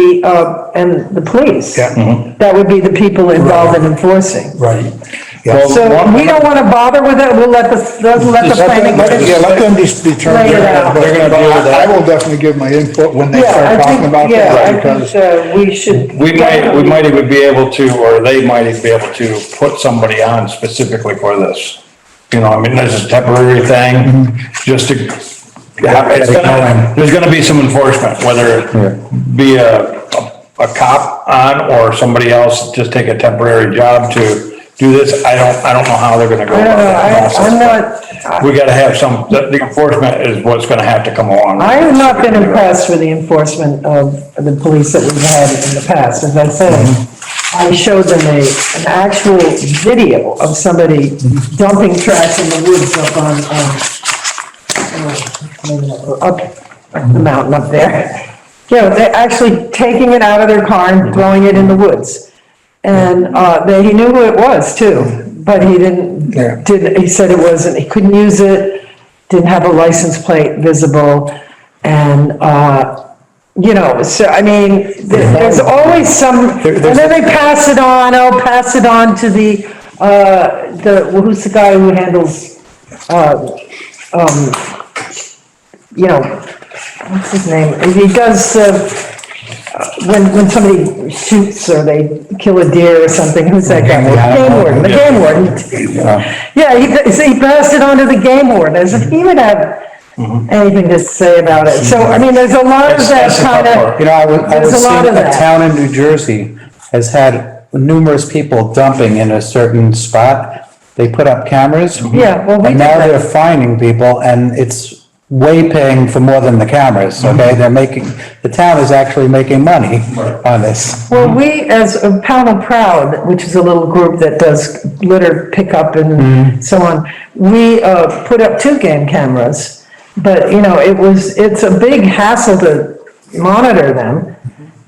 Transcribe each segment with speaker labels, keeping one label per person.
Speaker 1: the, uh, and the police.
Speaker 2: Yeah. Mhm.
Speaker 1: That would be the people involved in enforcing.
Speaker 2: Right. Yeah.
Speaker 1: So we don't want to bother with it, we'll let the, we'll let the
Speaker 2: Let them-
Speaker 1: planning.
Speaker 2: let them- Yeah, let them just determine.
Speaker 1: Lay it out.
Speaker 2: They're gonna deal with
Speaker 3: I
Speaker 2: that.
Speaker 3: will definitely give my input when they
Speaker 1: Yeah,
Speaker 3: start
Speaker 1: I
Speaker 3: talking about
Speaker 1: think, yeah,
Speaker 3: that,
Speaker 1: I think
Speaker 3: because
Speaker 1: uh, we should.
Speaker 2: We might, we might even be able to, or they might even be able to put somebody on specifically for this. You know, I mean, this is a temporary thing,
Speaker 1: Mm-hmm.
Speaker 2: just to, it's gonna, there's gonna be some enforcement, whether it be a, a cop on or somebody else just take a temporary job to do this. I don't, I don't know how they're gonna go
Speaker 1: I
Speaker 2: about
Speaker 1: don't know,
Speaker 2: that
Speaker 1: I,
Speaker 2: process.
Speaker 1: I'm not,
Speaker 2: We gotta have some, the the enforcement is what's gonna have to come along.
Speaker 1: I have not been impressed with the enforcement of the police that we've had in the past, as I said.
Speaker 2: Mm-hmm.
Speaker 1: I showed them a, an actual video of somebody dumping trash in the woods up on, um, uh, up the mountain up there. You know, they're actually taking it out of their car and throwing it in the woods. And, uh, they, he knew who it was too, but he didn't,
Speaker 3: Yeah.
Speaker 1: didn't, he said it wasn't, he couldn't use it, didn't have a license plate visible, and, uh, you know, so, I mean, th- there's always some, and then they pass it on, oh, pass it on to the, uh, the, who's the guy who handles, uh, um, you know, what's his name, he does, uh, when, when somebody shoots or they kill a deer or something, who's that guy? Game warden, the game warden. Yeah, he, so he passed it on to the game warden, as if he would have anything to say about it. So, I mean, there's a lot of
Speaker 2: That's-
Speaker 1: that
Speaker 2: that's the tough
Speaker 1: kind
Speaker 2: part.
Speaker 1: of.
Speaker 4: You know, I would, I would
Speaker 1: There's a
Speaker 4: say
Speaker 1: lot of
Speaker 4: a
Speaker 1: that.
Speaker 4: town in New Jersey has had numerous people dumping in a certain spot. They put up cameras.
Speaker 1: Yeah, well, we did
Speaker 4: And now
Speaker 1: that.
Speaker 4: they're finding people and it's way paying for more than the cameras,
Speaker 1: Mm-hmm.
Speaker 4: okay? They're making, the town is actually making money on this.
Speaker 1: Well, we, as a Pound of Proud, which is a little group that does litter pickup
Speaker 2: Mm-hmm.
Speaker 1: and so on, we, uh, put up two game cameras. But, you know, it was, it's a big hassle to monitor them.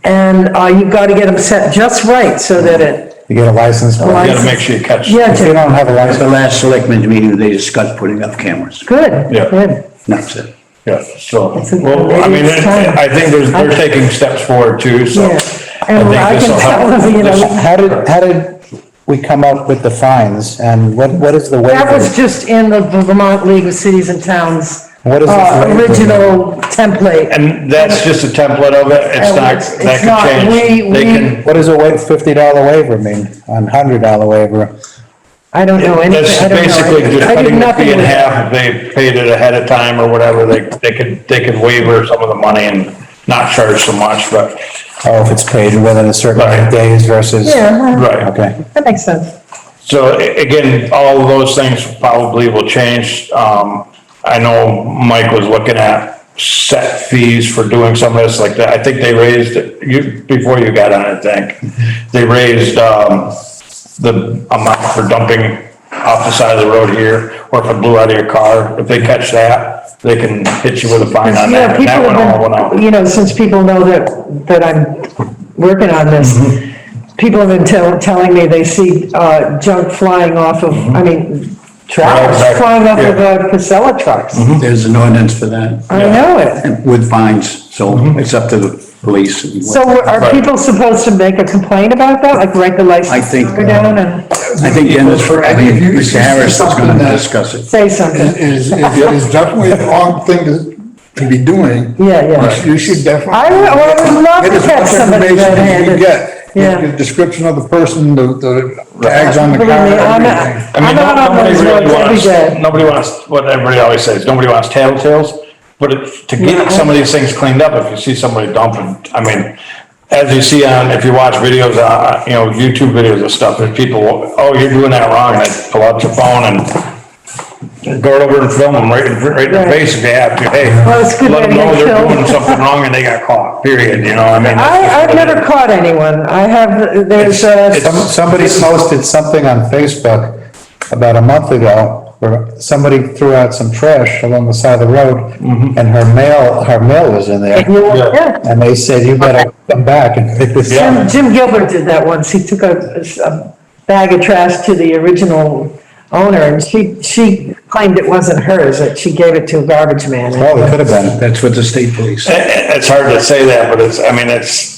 Speaker 1: And, uh, you've got to get them set just right so that it,
Speaker 4: You get a license
Speaker 2: You
Speaker 4: plate.
Speaker 2: gotta make sure you catch.
Speaker 1: yeah,
Speaker 4: If you
Speaker 1: ju-
Speaker 4: don't have a
Speaker 5: At the
Speaker 4: license,
Speaker 5: last selectmen's meeting, they discussed putting up cameras.
Speaker 1: good,
Speaker 2: Yeah.
Speaker 1: good.
Speaker 5: And That's it.
Speaker 2: Yeah, so,
Speaker 1: It's a-
Speaker 2: well, I mean,
Speaker 1: it's time.
Speaker 2: I think there's, they're taking steps forward too, so.
Speaker 1: Yeah. And
Speaker 2: think
Speaker 1: I can
Speaker 2: this'll help.
Speaker 1: tell them, you know,
Speaker 2: This'll-
Speaker 4: how did, how did we come up with the fines and what, what is the waiver?
Speaker 1: That was just in the Vermont League of Cities and Towns.
Speaker 4: What is the
Speaker 1: uh,
Speaker 4: flavor?
Speaker 1: Original template.
Speaker 2: And that's just a template of it, it's
Speaker 1: And
Speaker 2: not,
Speaker 1: it's-
Speaker 2: that
Speaker 1: it's not-
Speaker 2: could
Speaker 1: we-
Speaker 2: change. They
Speaker 1: we-
Speaker 2: can,
Speaker 4: What does a wa- fifty dollar waiver mean? A hundred dollar waiver?
Speaker 1: I don't know anything,
Speaker 2: that's
Speaker 1: I don't know.
Speaker 2: basically just
Speaker 1: I did
Speaker 2: cutting the
Speaker 1: nothing
Speaker 2: fee in
Speaker 1: with it.
Speaker 2: half, if they paid it ahead of time or whatever, they, they could, they could waiver some of the money and not charge so much, but,
Speaker 4: Oh, if it's paid within a certain amount
Speaker 2: Right.
Speaker 4: of days versus?
Speaker 1: Yeah, uh-huh. well,
Speaker 2: right.
Speaker 4: Okay.
Speaker 1: that makes sense.
Speaker 2: So a- again, all of those things probably will change. Um, I know Mike was looking at set fees for doing some of this like that. I think they raised, it- you, before you got on, I think, they raised, um, the amount for dumping off the side of the road here, or if it blew out of your car, if they catch that, they can hit you with a fine on
Speaker 1: Yeah,
Speaker 2: that. And
Speaker 1: people
Speaker 2: that one all went
Speaker 1: have
Speaker 2: out.
Speaker 1: been, you know, since people know that, that I'm working on this,
Speaker 2: Mm-hmm.
Speaker 1: people have been tell, telling me they see, uh, junk flying off of, I mean, trucks
Speaker 2: exactly,
Speaker 1: flying off of,
Speaker 2: Mm-hmm. yeah. Mm-hmm.
Speaker 1: uh, Casella trucks.
Speaker 5: There's an ordinance for that
Speaker 1: I
Speaker 2: Yeah.
Speaker 1: know it.
Speaker 5: and with fines, so
Speaker 3: Mm-hmm.
Speaker 5: it's up to the police.
Speaker 1: So we're- are
Speaker 2: Right.
Speaker 1: people supposed to make a complaint about that, like write the license
Speaker 5: think,
Speaker 1: number down and
Speaker 5: I think Dennis, I think Mr. Harris is going to discuss it.
Speaker 1: say something?
Speaker 3: is, is, is definitely the wrong thing to, to be doing.
Speaker 1: Yeah, yeah.
Speaker 3: You should definitely.
Speaker 1: I would- I would love to
Speaker 3: Get as
Speaker 1: catch
Speaker 3: much
Speaker 1: somebody
Speaker 3: information as you
Speaker 1: red-handed.
Speaker 3: Get
Speaker 1: Yeah.
Speaker 3: The description of the person, the, the tags on the car,
Speaker 1: Believe me, I'm not-
Speaker 3: everything.
Speaker 2: I mean,
Speaker 1: I'm out on
Speaker 2: nobody
Speaker 1: those
Speaker 2: really
Speaker 1: roads every
Speaker 2: wants,
Speaker 1: day.
Speaker 2: nobody wants, what everybody always says, nobody wants tattletales. But it- to
Speaker 1: Yeah.
Speaker 2: get some of these things cleaned up, if you see somebody dumping, I mean, as you see on, if you watch videos, uh, you know, YouTube videos and stuff, there's people, oh, you're doing that wrong, and they pull out your phone and go over and film them right in, right in their
Speaker 1: Right.
Speaker 2: face if they have to, hey.
Speaker 1: Well, it's good
Speaker 2: Let
Speaker 1: that
Speaker 2: them know
Speaker 1: they
Speaker 2: they're
Speaker 1: film.
Speaker 2: doing something wrong and they got caught, period, you know, I mean. that's just
Speaker 1: I, I've
Speaker 2: what it
Speaker 1: never
Speaker 2: is.
Speaker 1: caught anyone. I have, there's, uh,
Speaker 2: It's-
Speaker 4: Some, somebody posted something on Facebook about a month ago where somebody threw out some trash along the side of the road
Speaker 2: Mm-hmm.
Speaker 4: and her mail, her mail was in there.
Speaker 1: yeah.
Speaker 4: And they said, you better come back and pick this
Speaker 2: Yeah.
Speaker 4: up.
Speaker 1: Jim, Jim Gilbert did that once, he took a, a bag of trash to the original owner, and she, she claimed it wasn't hers, that she gave it to a garbage man.
Speaker 4: Oh, Well, it could have been.
Speaker 5: That's with the state police.
Speaker 2: It- it- It's hard to say that, but it's, I mean, it's,